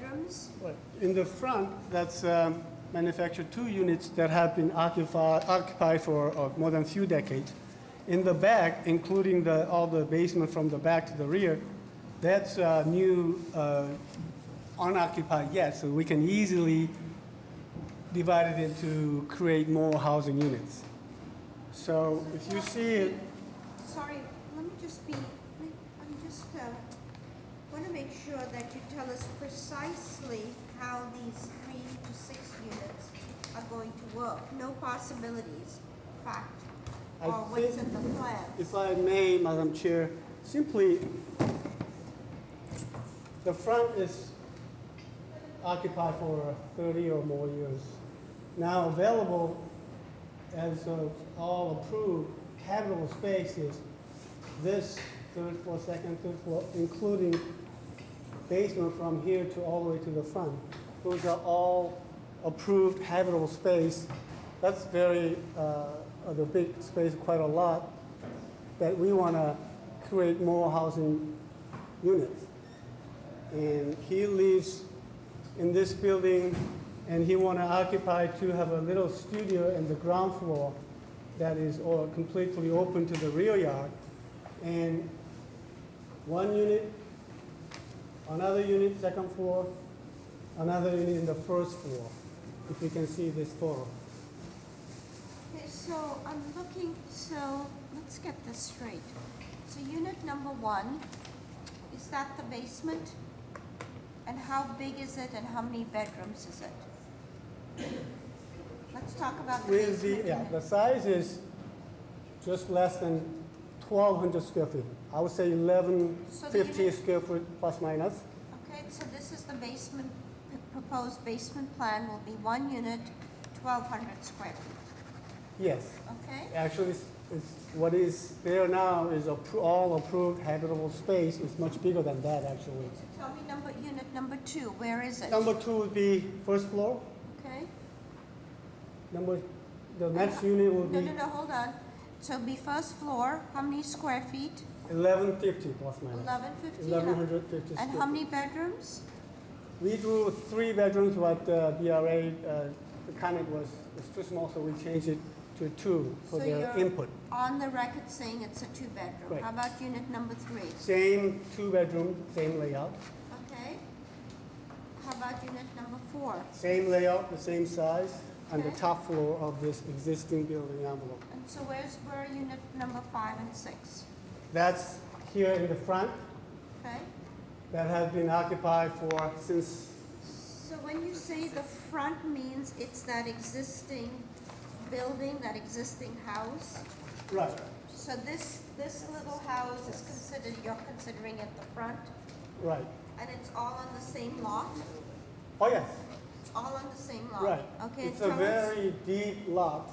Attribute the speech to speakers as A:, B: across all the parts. A: bedrooms?
B: Right. In the front, that's um, manufactured two units that have been occupied, occupied for uh, more than a few decades. In the back, including the, all the basement from the back to the rear, that's uh, new uh, unoccupied yet, so we can easily divide it into create more housing units. So if you see it,
A: Sorry, let me just be, I'm just, uh, want to make sure that you tell us precisely how these three to six units are going to work. No possibilities, fact,
B: I
A: or what's
B: think-
A: in the plan.
B: If I may, Madam Chair, simply, the front is occupied for 30 or more years. Now available, as of all approved, habitable spaces, this third floor, second, third floor, including basement from here to all the way to the front. Those are all approved habitable space. That's very, uh, the big space quite a lot, that we want to create more housing units. And he lives in this building, and he want to occupy to have a little studio in the ground floor that is all completely open to the rear yard. And one unit another unit second floor, another unit in the first floor, if you can see this photo.
A: Okay, so I'm looking, so let's get this straight. So unit number one, is that the basement? And how big is it and how many bedrooms is it? Let's talk about the
B: With
A: basement.
B: the, yeah,
A: unit.
B: the size is just less than 1,200 square feet. I would say 11,
A: So the
B: 15
A: unit-
B: square foot plus minus.
A: Okay, so this is the basement, the proposed basement plan will be one unit, twelve hundred square feet,
B: Yes,
A: okay?
B: actually, it's- it's, what is there now is appro- all approved habitable space. It's much bigger than that, actually.
A: So tell me number, unit number two, where is it?
B: Number two would be first floor.
A: Okay?
B: Number, the next unit will
A: No,
B: be
A: no, no, hold on. So be first floor, how many square feet?
B: 1150 plus minus.
A: Eleven fifty?
B: 1150
A: And
B: square
A: how many bedrooms?
B: We drew three bedrooms, but uh, BRA, uh, the comment was, it's too small, so we changed it to two for
A: So
B: their
A: you're-
B: input.
A: On the record saying it's a two-bedroom.
B: Right.
A: How about unit number three?
B: Same two-bedroom, same layout,
A: Okay? How about unit number four?
B: same layout, the same size, on the
A: Okay.
B: top floor of this existing building envelope.
A: And so where's, where are unit number five and six?
B: That's here in the front,
A: Okay?
B: that has been occupied for, since,
A: So when you say the front means it's that existing building, that existing house?
B: right,
A: So this, this little house is considered, you're considering it the front?
B: right.
A: And it's all on the same lot?
B: Oh, yes,
A: It's all on the same lot?
B: right.
A: Oh, Okay, and
B: It's a
A: tell us,
B: very deep lot.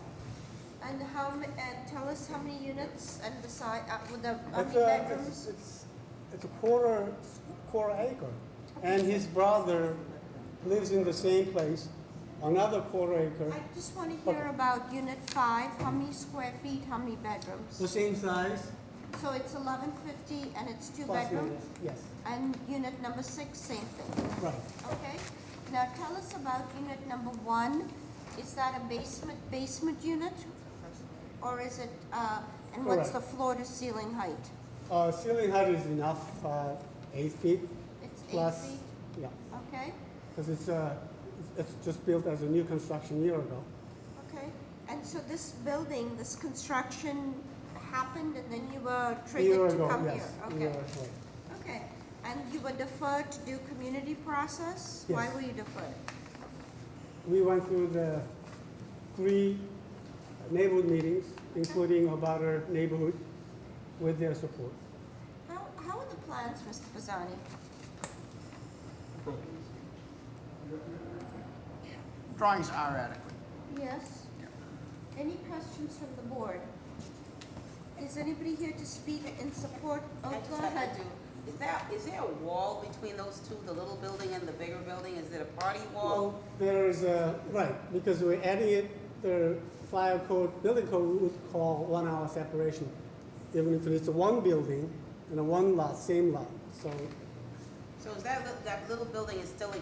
A: and how, ma- and tell us how many units and the size, uh, with the, how many
B: It's a, it's,
A: bedrooms?
B: it's, it's a quarter, quarter acre. And his brother lives in the same place, another quarter acre.
A: I just wanna hear
B: Okay.
A: about unit five, how many square feet, how many bedrooms?
B: The same size?
A: So it's eleven fifty and it's two
B: plus
A: bedrooms?
B: minus. Yes,
A: And unit number six, same thing,
B: right.
A: okay? Now tell us about unit number one. Is that a basement, basement unit? Or is it, uh, and what's
B: Correct.
A: the floor to ceiling height?
B: Uh, ceiling height is enough, uh, eight feet
A: It's eight
B: plus,
A: feet,
B: yeah,
A: okay,
B: because it's, uh, it's it's just built as a new construction year ago.
A: okay. And so this building, this construction happened and then you were
B: Year
A: triggered to
B: ago,
A: come here?
B: yes, year ago.
A: Okay, okay. And you were deferred to do community process? Why
B: Yes.
A: were you deferred?
B: We went through the three neighborhood meetings, including about our neighborhood, with their support.
A: How, how are the plans, Mr. Pisani?
C: Drawings are adequate.
A: Yes. Any questions from the board? Is anybody here to speak in support? Oh,
D: I just
A: go
D: have
A: ahead.
D: to do, is that, is there a wall between those two, the little building and the bigger building? Is it a party wall?
B: Well, there is a, right, because we're adding it, the fire code, building code we would call one hour separation. Even if it's one building and a one lot, same lot, so
D: So is that, li- that little building is still a